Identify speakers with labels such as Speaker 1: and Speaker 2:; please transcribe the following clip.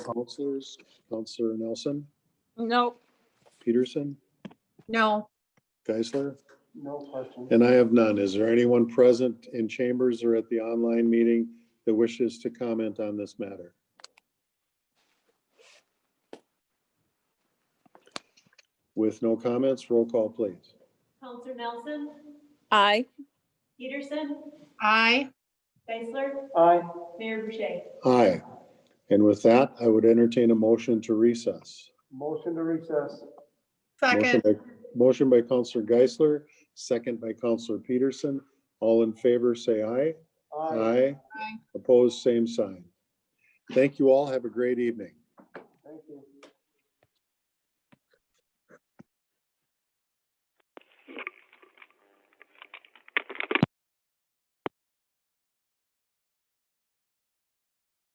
Speaker 1: Counselors, Counselor Nelson,
Speaker 2: No,
Speaker 1: Peterson,
Speaker 3: No,
Speaker 1: Geisler,
Speaker 4: No question.
Speaker 1: and I have none. Is there anyone present in chambers or at the online meeting that wishes to comment on this matter? With no comments, roll call, please.
Speaker 5: Counselor Nelson,
Speaker 2: aye.
Speaker 5: Peterson,
Speaker 3: I,
Speaker 5: Geisler,
Speaker 4: Aye.
Speaker 5: Mayor Boucher.
Speaker 1: Aye. And with that, I would entertain a motion to recess.
Speaker 4: Motion to recess.
Speaker 3: second,
Speaker 1: Motion by- Motion by Counselor Geisler, second by Counselor Peterson. All in favor, say aye. Aye.
Speaker 3: Aye.
Speaker 1: Opposed, same sign. Thank you all. Have a great evening.
Speaker 4: Thank you.